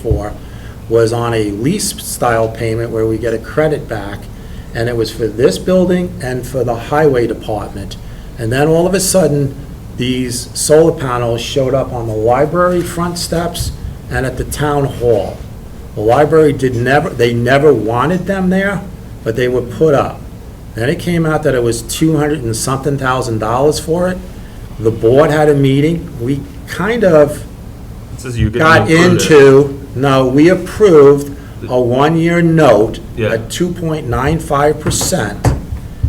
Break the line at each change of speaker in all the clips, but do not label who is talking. for was on a lease-style payment where we get a credit back, and it was for this building and for the highway department. And then all of a sudden, these solar panels showed up on the library front steps and at the town hall. The library did never, they never wanted them there, but they were put up. Then it came out that it was 200 and something thousand dollars for it. The board had a meeting. We kind of
Says you get
got
included.
into, no, we approved a one-year note
Yeah.
at 2.95%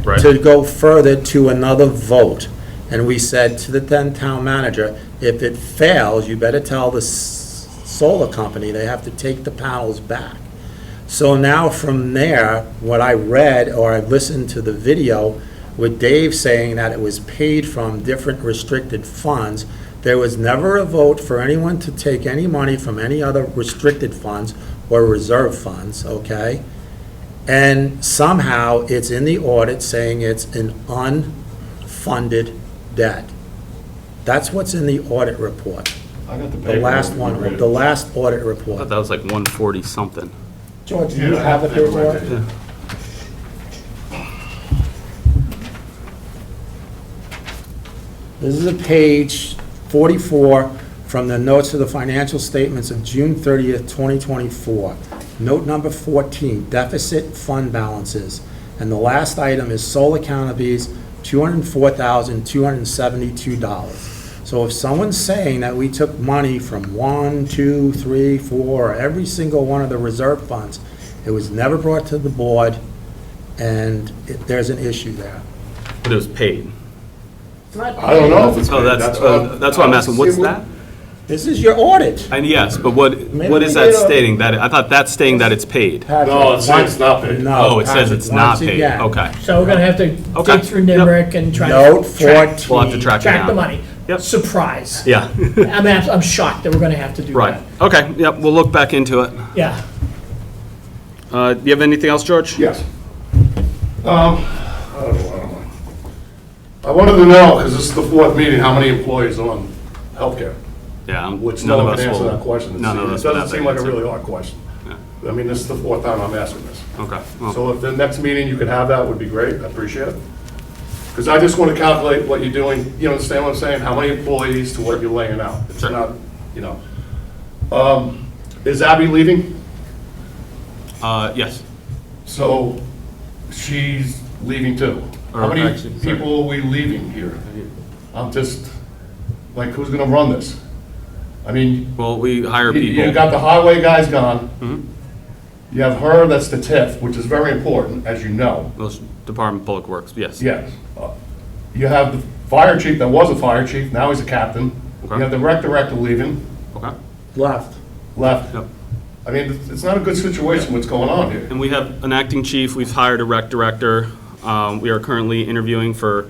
Right.
to go further to another vote. And we said to the then town manager, if it fails, you better tell the s- solar company they have to take the panels back. So now from there, what I read or I listened to the video with Dave saying that it was paid from different restricted funds, there was never a vote for anyone to take any money from any other restricted funds or reserve funds, okay? And somehow it's in the audit saying it's an unfunded debt. That's what's in the audit report,
I got
the last one, the last audit
I thought
report.
that was like one forty something.
George, do you have the paperwork? This is a page 44 from the notes of the financial statements of June 30th, 2024. Note number 14, deficit fund balances. And the last item is solar canopies, $204,272. So if someone's saying that we took money from one, two, three, four, or every single one of the reserve funds, it was never brought to the board, and it- there's an issue there.
But it was paid.
I don't know if it's.
Oh,
paid.
that's, oh, that's what I'm asking, what's that?
This is your audit.
And yes, but what, what is
Maybe we
that
did a-
stating? That, I thought that's stating that it's paid.
Patrick,
No, it says
once-
not paid.
no,
Oh, it says
Patrick,
it's not
once
paid,
again,
okay.
So we're gonna have to
Okay.
dig through
Yep.
NIMRIC and try
Note
to track,
14.
We'll have to track it
track the
down.
money.
Yep.
Surprise.
Yeah,
I'm, abs- I'm shocked that we're gonna have to do
right,
that.
okay, yep, we'll look back into it.
Yeah.
Uh, do you have anything else, George?
Yes. Um, I don't know, I don't know. I wanted to know, because this is the fourth meeting, how many employees are on healthcare?
Yeah, um,
Which
none
no
of
one
us
can answer
will-
that question.
None of us
It
will have
doesn't
that
seem like a
answer.
really hard question. I mean, this is the fourth time I'm asking this.
Okay, well,
So if the next meeting you could have that would be great, I appreciate it. Because I just want to calculate what you're doing, you understand what I'm saying? How many employees to what you're laying out. It's
Sure.
not, you know. Um, Is Abby leaving?
uh, yes,
So she's leaving too. How
Or
many
Uh, actually, sorry.
people are we leaving here? I'm just, like, who's going to run this? I mean,
well, we hire
you- you
people. Mm-hmm.
got the highway guys gone. You have her, that's the TIF, which is very important, as you know.
Those Department of Public Works, yes.
Yes. Uh, You have the fire chief that was a fire chief, now he's a captain. You
Okay.
have the rec director leaving,
Okay,
Left.
left.
yep.
I mean, it's- it's not a good situation what's going on here.
And we have an acting chief, we've hired a rec director. Um, We are currently interviewing for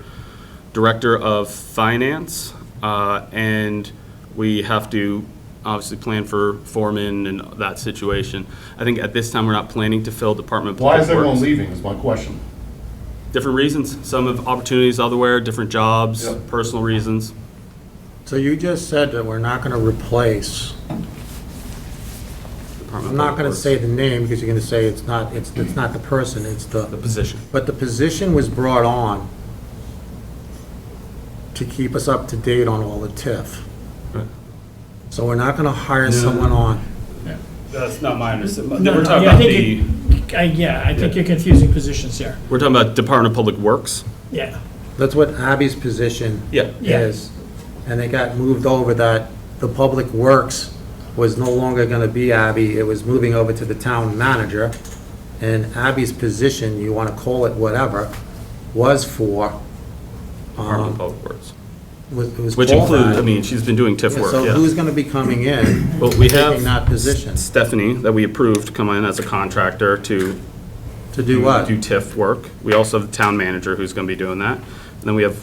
Director of Finance, uh, and we have to obviously plan for foreman and that situation. I think at this time, we're not planning to fill Department of
Why
Public
is everyone
Works.
leaving is my question.
Different reasons, some have opportunities elsewhere, different jobs,
Yep.
personal reasons.
So you just said that we're not going to replace, I'm
Department of
not going
Public
to
Works.
say the name because you're going to say it's not, it's, it's not the person, it's
The
the,
position.
but the position was brought on to keep us up to date on all the TIF.
Right.
So we're not going to hire someone on.
That's not my understanding.
No, no, yeah, I think you- I- Yeah, I think you're confusing positions here.
We're talking about Department of Public Works?
Yeah.
That's what Abby's position
Yeah.
Yeah.
is. And it got moved over that the Public Works was no longer going to be Abby, it was moving over to the town manager. And Abby's position, you want to call it whatever, was for,
Department of
Uh-huh.
Public Works.
was was
Which
called
includes, I
that.
mean, she's been doing TIF work,
So
yeah.
who's going to be coming in,
Well, we
taking
have
that position?
Stephanie that we approved come in as a contractor to
To do what?
do TIF work. We also have the town manager who's going to be doing that. And then we have,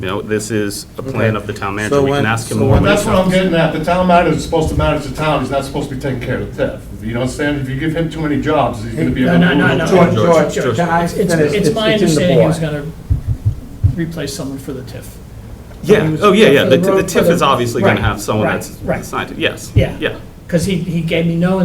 you know, this is a plan of the
So
town manager. We
when-
can ask him
so
more.
when
But
when he
that's what I'm
comes.
getting at, the town manager is supposed to manage the town, he's not supposed to be taking care of the TIF. You understand, if you give him too many jobs, he's gonna be.
No, no, no, no.
George,
George,
George,
George,
can I
It's, it's-
finish?
it's my
in the
understanding he was
board.
gonna replace someone for the TIF.
Yeah, oh, yeah, yeah. The the TIF is obviously going to
Right,
have someone
right,
that's
right.
assigned, to- yes.
Yeah.
Yeah,
because he, he gave me no